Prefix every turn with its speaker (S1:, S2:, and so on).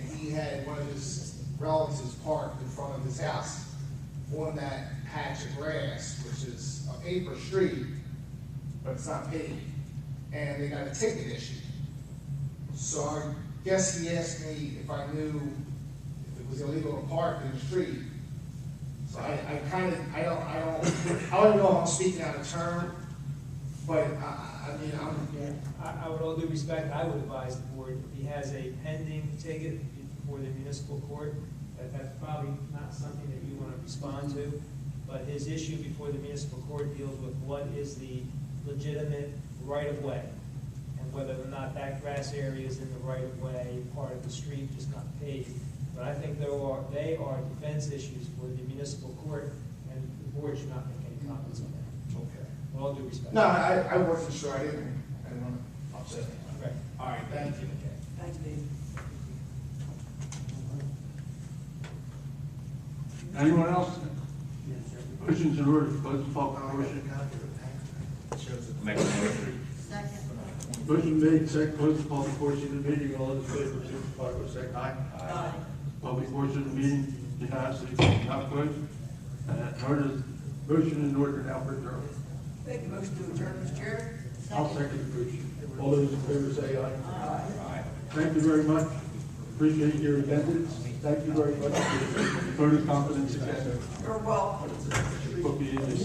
S1: had one of his relatives parked in front of his house on that patch of grass, which is a paper street, but it's not paved, and they got a ticket issued. So I guess he asked me if I knew if it was illegal to park in the street. So I, I kind of, I don't, I don't, I don't know if I'm speaking out of turn, but I, I- I mean, I'm,
S2: Yeah, I, I would all due respect, I would advise the board, if he has a pending ticket before the municipal court, that that's probably not something that you want to respond to, but his issue before the municipal court deals with what is the legitimate right-of-way, and whether or not that grass area is in the right-of-way, part of the street, just not paved. But I think there are, they are defense issues for the municipal court, and the board should not make any comments on that,
S1: okay.
S2: with all due respect.
S1: No, I, I wasn't sure, I didn't, I didn't want to upset anyone.
S2: Right.
S1: All right, thank you.
S3: Thanks, Dave.
S4: Anyone else? Motion's in order to close the public portion.
S5: Make a motion.
S3: Second.
S4: Motion made, second, close the public portion of the meeting, all those in favor, signify by saying aye.
S3: Aye.
S4: Public portion of the meeting, unanimously, not closed. And that Uh, order, motion in order now for adjournment.
S3: Make a motion to adjourn, Mr. Chair.
S4: I'll second the motion. All those in favor say aye. Thank you very much. Appreciate your attendance. Thank you very much for your vote of confidence again.
S3: You're welcome.
S4: Hope you